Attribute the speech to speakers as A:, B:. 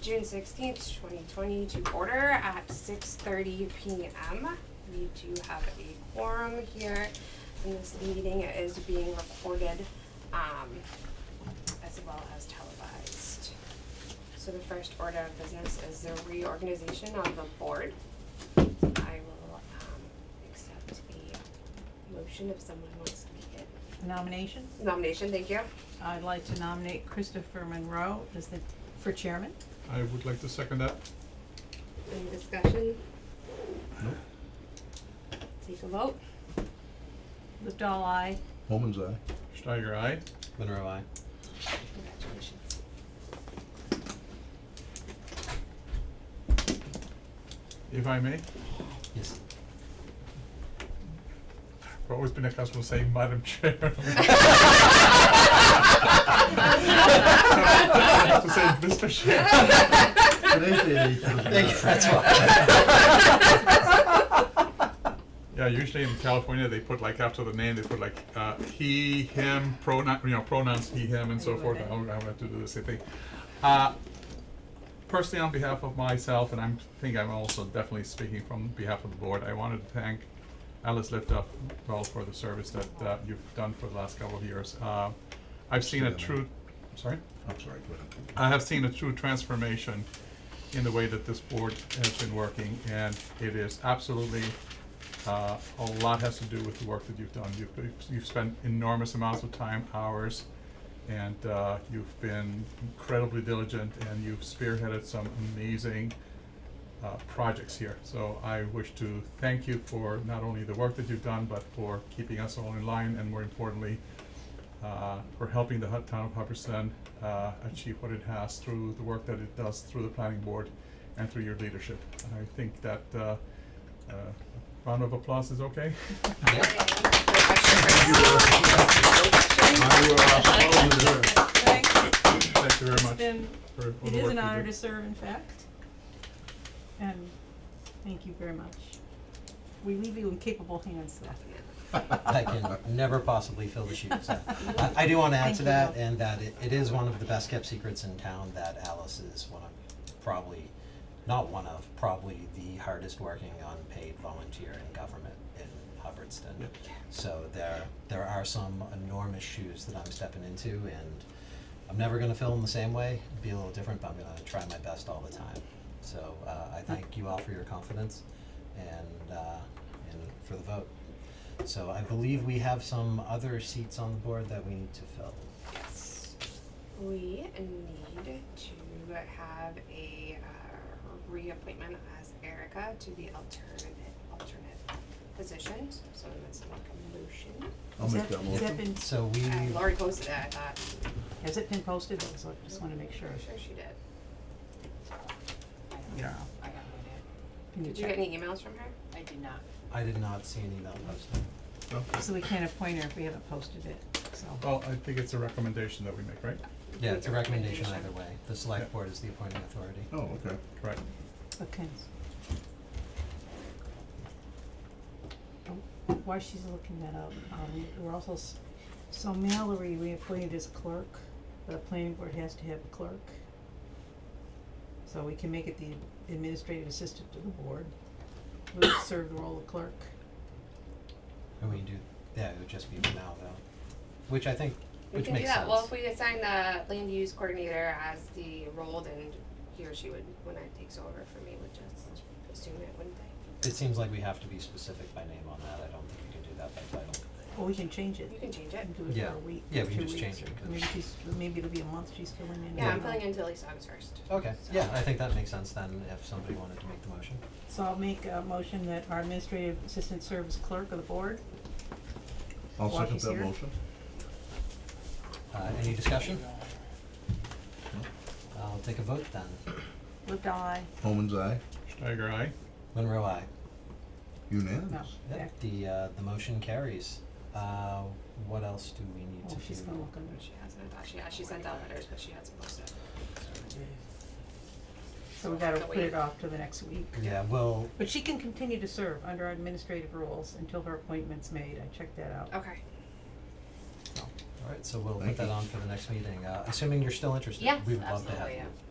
A: June sixteenth, twenty twenty, to order at six thirty P M. We do have a quorum here, and this meeting is being recorded, um, as well as televised. So the first order of business is the reorganization of the board. I will, um, accept a motion if someone wants to make it.
B: Nomination,
A: Nomination, thank you.
B: I'd like to nominate Christopher Monroe as the, for chairman.
C: I would like to second that.
A: Any discussion? Take a vote.
B: Liftall, aye.
D: Woman's eye.
C: Steiger, aye.
E: Monroe, I.
A: Congratulations.
C: If I may,
E: Yes.
C: I've always been accustomed to saying Madam Chair. I have to say Mr. Chair.
E: That's
C: Yeah, usually in California, they put like after the name, they put like, uh, he, him, pronoun, you know, pronouns, he, him, and so forth. I would, I would have to do the same thing. Uh, personally, on behalf of myself, and I'm, think I'm also definitely speaking from behalf of the board, I wanted to thank Alice Liftoff, well, for the service that, uh, you've done for the last couple of years. Uh, I've seen a
D: Stay on
C: true, sorry?
D: I'm sorry, go ahead.
C: I have seen a true transformation in the way that this board has been working, and it is absolutely, uh, a lot has to do with the work that you've done. You've, you've spent enormous amounts of time, hours, and, uh, you've been incredibly diligent, and you've spearheaded some amazing, uh, projects here. So I wish to thank you for not only the work that you've done, but for keeping us all in line, and more importantly, uh, for helping the hu- town of Hubbardston uh, achieve what it has through the work that it does through the planning board and through your leadership. And I think that uh, uh, a round of applause is okay. uh,
B: Thanks, it's
C: Thank you very much.
B: been,
C: for all
B: it
C: the
B: is
C: work
B: an
C: you
B: honor
C: do.
B: to serve, in fact. And thank you very much. We leave you in capable hands, though.
E: I can never possibly fill the shoes. Uh, I, I do wanna add
B: Thank
E: to
B: you.
E: that, and that it, it is one of the best kept secrets in town that Alice is one of, probably, not one of, probably the hardest working unpaid volunteer in government in Hubbardston. So there, there are some enormous shoes that I'm stepping into, and I'm never gonna fill them the same way, be a little different, but I'm gonna try my best all the time. So, uh, I thank you all for your confidence and, uh, and for the vote. So I believe we have some other seats on the board that we need to fill.
A: Yes. We need to have a uh, reappointment as Erica to the alternate, alternate position. So let's make a motion.
D: I'll
B: Has
D: make
B: that-
D: that
B: Has that
D: motion.
B: been,
E: So we,
A: I, Lori posted that, I thought,
B: has it been posted, though, so I just wanna make sure.
A: I'm sure she did.
C: Yeah.
F: I got one
B: Can you
A: Did you get
B: check?
A: any emails from her?
F: in. I did not.
E: I did not see an email posted.
B: So we can't appoint her if we haven't posted it,
D: Oh,
B: so.
C: Well, I think it's a recommendation that we make, right?
E: Yeah,
A: Make
E: it's a recommendation either
A: recommendation.
E: way. The select board is the appointing authority.
D: Oh, okay.
C: Right.
B: Okay. Oh, While she's looking that up, um, we're also, s- so Mallory, we appointed as clerk, but a planning board has to have a clerk. So we can make it the administrative assistant to the board, who would serve the role of clerk.
E: And we do, yeah, it would just be for now though, which I think,
A: We
E: which
A: can do
E: makes sense.
A: that, well, if we assign the land use coordinator as the role, then he or she would, when it takes over for me, would just assume it, wouldn't they?
E: It seems like we have to be specific by name on that. I don't think we can do that by title.
B: Or we can change it,
A: You can change it.
B: and do it
E: Yeah.
B: for a week,
E: Yeah, we
B: two
E: can just
B: weeks,
E: change it,
B: or
E: 'cause-
B: maybe she's, maybe it'll be a month she's filling in.
A: Yeah, I'm
B: now.
A: filling in until Lisa August first.
E: Okay, yeah, I think that makes sense then if somebody wanted to make the motion.
B: So I'll make a motion that our administrative assistant serves clerk of the board.
D: I'll
B: While
D: second
B: she's
D: that
B: here.
D: motion.
E: Uh, any discussion? I'll take a vote then.
B: Lived I,
D: Woman's eye,
C: Steiger, aye.
E: Monroe, I.
B: no,
D: unanimous.
B: yeah.
E: Yep, the, uh, the motion carries. Uh, what else do we need to
B: Oh,
E: do?
B: she's gonna look under
A: She
B: shit.
A: hasn't, I thought she, she sent out letters, but she hasn't posted.
B: So we gotta put it off to the next week.
E: Yeah, well,
B: But she can continue to serve under our administrative rules until her appointment's made. I checked that out.
A: Okay.
E: alright, so we'll put
D: Thank
E: that
D: you.
E: on for the next meeting, uh, assuming you're still interested,
A: Yes,
E: we would love to have you.
A: absolutely,